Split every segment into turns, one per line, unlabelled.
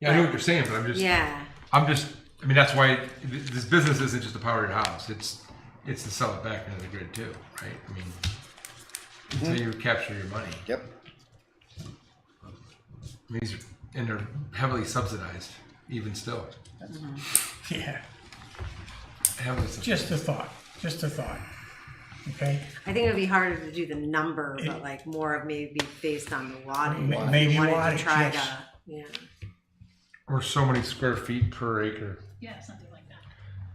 Yeah, I know what you're saying, but I'm just,
Yeah,
I'm just, I mean, that's why th- this business isn't just to power your house. It's, it's to sell it back into the grid too, right? I mean, until you capture your money.
Yep.
I mean, These are, and they're heavily subsidized, even still.
Yeah,
Heavily subsidized.
just a thought, just a thought. Okay,
I think it would be harder to do the number, but like more of maybe based on the wattage.
Ma-
if you
maybe
wanted to
wattage,
Try
yes.
to, yeah.
Or so many square feet per acre.
Yeah, something like that.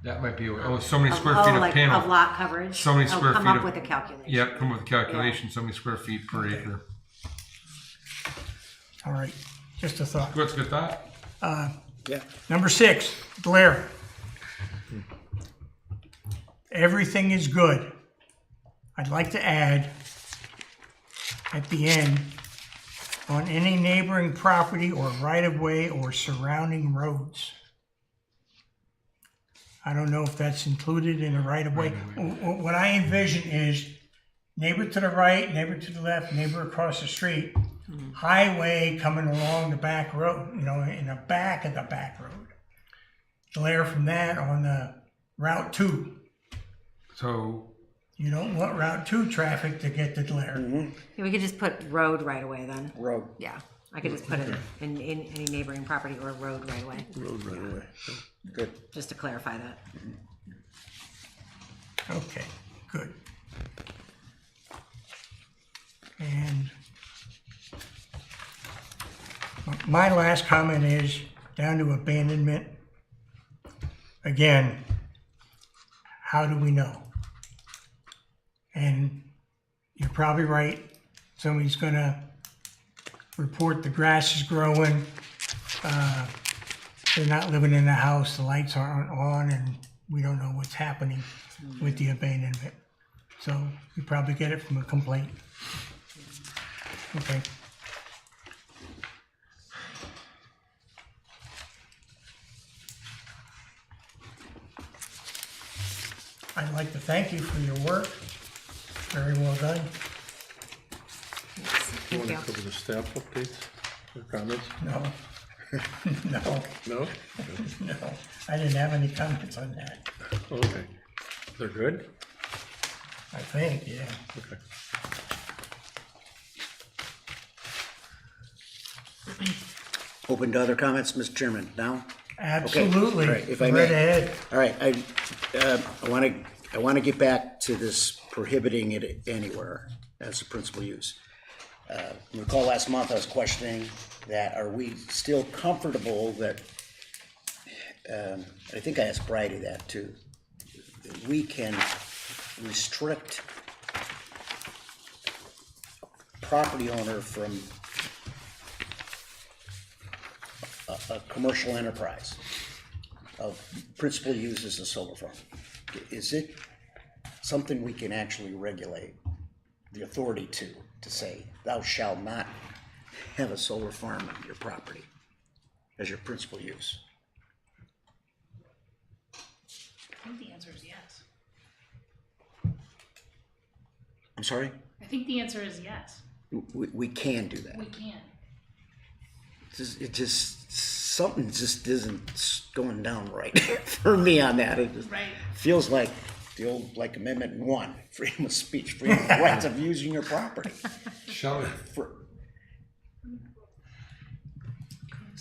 That might be, oh, so many
Of-
square
oh,
feet of
like Of
panel.
lot coverage.
So many
Oh,
square
Come
feet
up
of-
with a calculation.
Yep, come with a calculation, so many square feet per acre.
all right, just a thought.
What's a good thought?
Yeah.
Number six, glare. Everything is good. I'd like to add at the end, on any neighboring property or right of way or surrounding roads. I don't know if that's included in a right of way. What I envision is neighbor to the right, neighbor to the left, neighbor across the street, highway coming along the back road, you know, in the back of the back road. Glare from that on the Route Two.
So,
You don't want Route Two traffic to get the glare.
Yeah, We could just put road right away then.
Road.
Yeah, I could just put it in, in any neighboring property or road right away,
Road right away. Good.
just to clarify that.
Okay, good. And my last comment is down to abandonment. Again, how do we know? And you're probably right. Somebody's gonna report the grass is growing. uh, They're not living in the house, the lights aren't on, and we don't know what's happening with the abandonment. So you probably get it from a complaint. Okay. I'd like to thank you for your work. Very well done.
Do you
Thank
want
you.
to cover the staff updates or comments?
No. No,
No?
no. I didn't have any comments on that.
Oh, Okay. They're good?
I think, yeah.
Okay.
Open to other comments, Mr. Chairman, now?
Absolutely.
All right, if I may.
Right ahead.
All right, I, uh, I want to, I want to get back to this prohibiting it anywhere as a principal use. Uh, Recall last month, I was questioning that, are we still comfortable that, um, I think I asked Bridie that too, that we can restrict property owner from a, a commercial enterprise of principal use as a solar farm. Is it something we can actually regulate the authority to, to say, thou shall not have a solar farm on your property as your principal use?
I think the answer is yes.
I'm sorry?
I think the answer is yes.
We, we can do that.
We can.
It's just- It just, something just isn't going down right for me on that. It just
Right.
feels like the old, like Amendment One, freedom of speech, freedom of rights of using your property.
shall we?
For,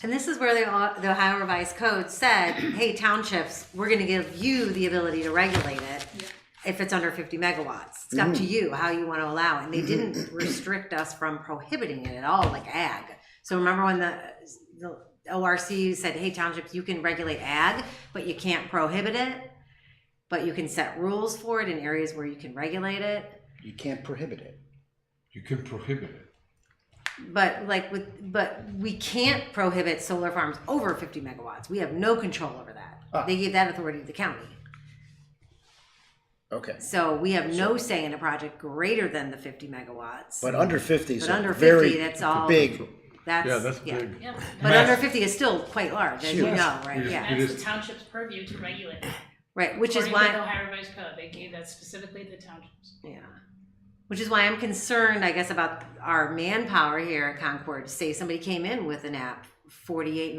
And this is where the, the Ohio Revised Code said, hey, townships, we're gonna give you the ability to regulate it if it's under fifty megawatts. It's up to you how you wanna allow it. And they didn't restrict us from prohibiting it at all, like ag. So remember when the, the ORC said, hey, townships, you can regulate ag, but you can't prohibit it? But you can set rules for it in areas where you can regulate it?
you can't prohibit it.
You could prohibit it.
But like with, but we can't prohibit solar farms over fifty megawatts. We have no control over that. They gave that authority to the county.
Okay.
So we have no say in a project greater than the fifty megawatts.
But under fifty is
But under
a
50,
very
that's all-
big,
That's,
Yeah, that's big.
Yeah.
But under fifty is still quite large, as you
Huge.
know, right?
Huge.
Yeah,
It
That's
is-
the township's purview to regulate.
right, which is
According to the
why,
Ohio Revised Code, they gave that specifically to the townships.
yeah. Which is why I'm concerned, I guess, about our manpower here at Concord. Say somebody came in with an app, forty-eight